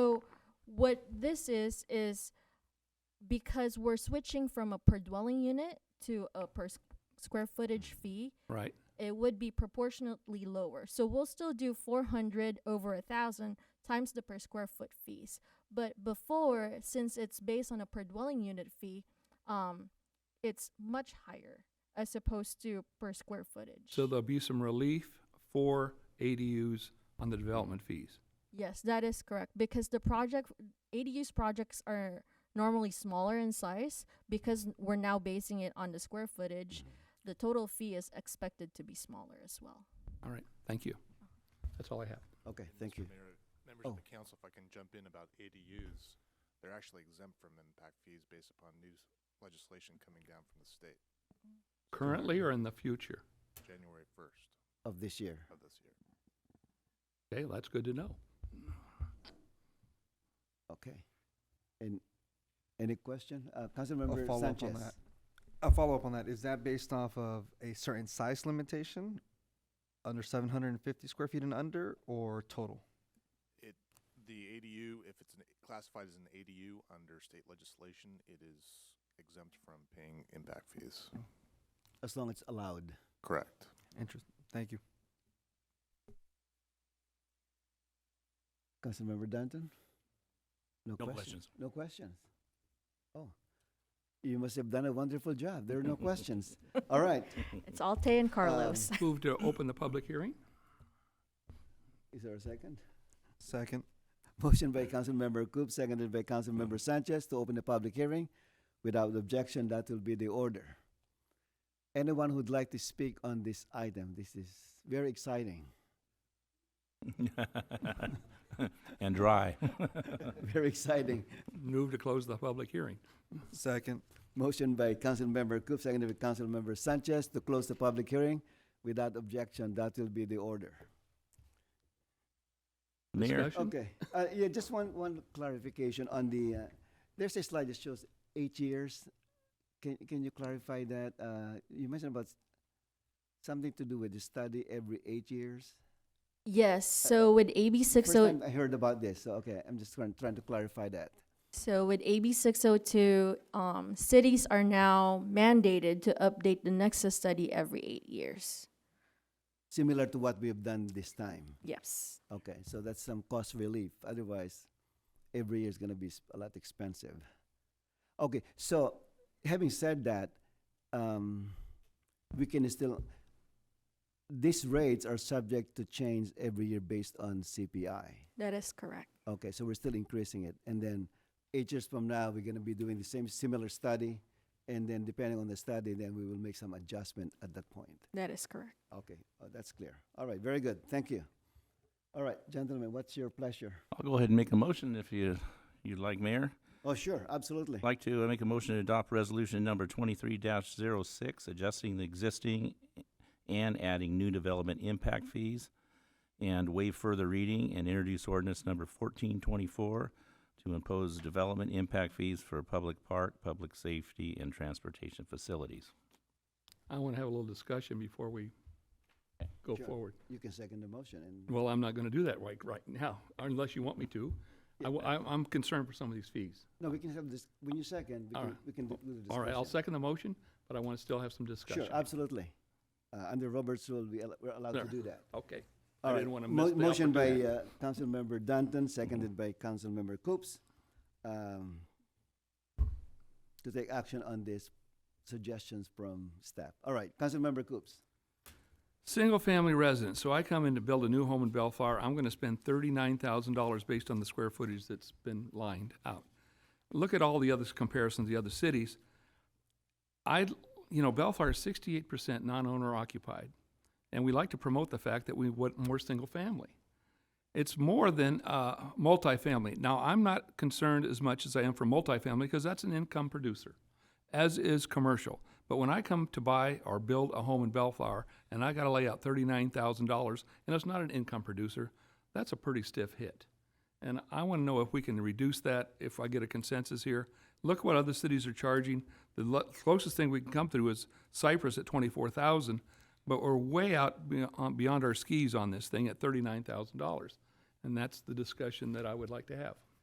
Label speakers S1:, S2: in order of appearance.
S1: So what this is is because we're switching from a per dwelling unit to a per s- square footage fee,
S2: Right.
S1: it would be proportionately lower. So we'll still do 400 over a thousand times the per square foot fees. But before, since it's based on a per dwelling unit fee, um, it's much higher as opposed to per square footage.
S2: So there'll be some relief for ADUs on the development fees.
S1: Yes, that is correct because the project ADUs projects are normally smaller in size because n- we're now basing it on the square footage. The total fee is expected to be smaller as well.
S2: All right, thank you. That's all I have.
S3: Okay, thank you.
S4: Mr. Mayor, members
S3: Oh.
S4: of the council, if I can jump in about ADUs, they're actually exempt from impact fees based upon new s- legislation coming down from the state,
S2: Currently or in the future?
S4: January first
S3: Of this year.
S4: of this year.
S2: Okay, that's good to know.
S3: Okay. And any question? Uh, Councilmember
S5: follow up on
S3: Sanchez.
S5: that. A follow-up on that, is that based off of a certain size limitation? Under seven hundred and fifty square feet and under, or total?
S4: It, the ADU, if it's an- classified as an ADU under state legislation, it is exempt from paying impact fees.
S3: As long as it's allowed.
S4: Correct.
S5: Interest, thank you.
S3: Councilmember Danton? No
S2: No
S3: questions?
S2: questions.
S3: No questions? Oh, you must have done a wonderful job. There are no questions. All right.
S1: It's Alte and Carlos.
S2: Move to open the public hearing?
S3: Is there a second?
S5: Second,
S3: Motion by Councilmember Coop, seconded by Councilmember Sanchez to open the public hearing. Without objection, that will be the order. Anyone who'd like to speak on this item, this is very exciting.
S6: and dry.
S3: Very exciting.
S2: Move to close the public hearing.
S5: second,
S3: Motion by Councilmember Coop, seconded by Councilmember Sanchez to close the public hearing. Without objection, that will be the order.
S6: Mayor,
S2: Discussion?
S3: Okay, uh, yeah, just one, one clarification on the, uh, there's a slide that shows eight years. Can, can you clarify that? Uh, you mentioned about s- something to do with the study every eight years?
S1: Yes, so with AB
S3: First
S1: 60
S3: time I heard about this, so, okay, I'm just trying, trying to clarify that.
S1: So with AB 602, um, cities are now mandated to update the Nexus study every eight years.
S3: Similar to what we have done this time.
S1: Yes.
S3: Okay, so that's some cost relief. Otherwise, every year is going to be s- a lot expensive. Okay, so having said that, um, we can still, these rates are subject to change every year based on CPI.
S1: That is correct.
S3: Okay, so we're still increasing it. And then eight years from now, we're going to be doing the same similar study. And then depending on the study, then we will make some adjustment at that point.
S1: That is correct.
S3: Okay, uh, that's clear. All right, very good. Thank you. All right, gentlemen, what's your pleasure?
S6: I'll go ahead and make a motion if you, you'd like, Mayor.
S3: Oh, sure, absolutely.
S6: I'd like to uh, make a motion to adopt resolution number twenty-three 6 adjusting the existing and adding new development impact fees, and waive further reading and introduce ordinance number fourteen twenty-four to impose development impact fees for public park, public safety, and transportation facilities.
S2: I want to have a little discussion before we go
S3: Sure.
S2: forward.
S3: You can second the motion and,
S2: Well, I'm not going to do that right, right now, unless you want me to. I, w- I- I'm concerned for some of these fees.
S3: no, we can have this, when you second, we
S2: All
S3: can,
S2: right.
S3: we can do do the discussion.
S2: All right, I'll second the motion, but I want to still have some discussion.
S3: Sure, absolutely. Uh, under Robert's rule, we, al- we're allowed to
S2: There.
S3: do that.
S2: Okay.
S3: All
S2: I
S3: right.
S2: didn't want to
S3: Mo-
S2: miss the
S3: Motion by,
S2: opportunity.
S3: uh, Councilmember Danton, seconded by Councilmember Coops, um, to take action on these suggestions from staff. All right, Councilmember Coops.
S2: Single family residence, so I come in to build a new home in Bellflower, I'm gonna spend thirty-nine thousand dollars based on the square footage that's been lined out. Look at all the other comparisons, the other cities. I, you know, Bellflower is sixty-eight percent non-owner occupied, and we like to promote the fact that we want more single family. It's more than, uh, multifamily. Now, I'm not concerned as much as I am for multifamily, because that's an income producer as is commercial. But when I come to buy or build a home in Bellflower and I got to lay out $39,000 and it's not an income producer, that's a pretty stiff hit. And I want to know if we can reduce that if I get a consensus here. Look what other cities are charging. The lo- closest thing we can come through is Cyprus at 24,000, but we're way out be- on- beyond our skis on this thing at $39,000. And that's the discussion that I would like to have.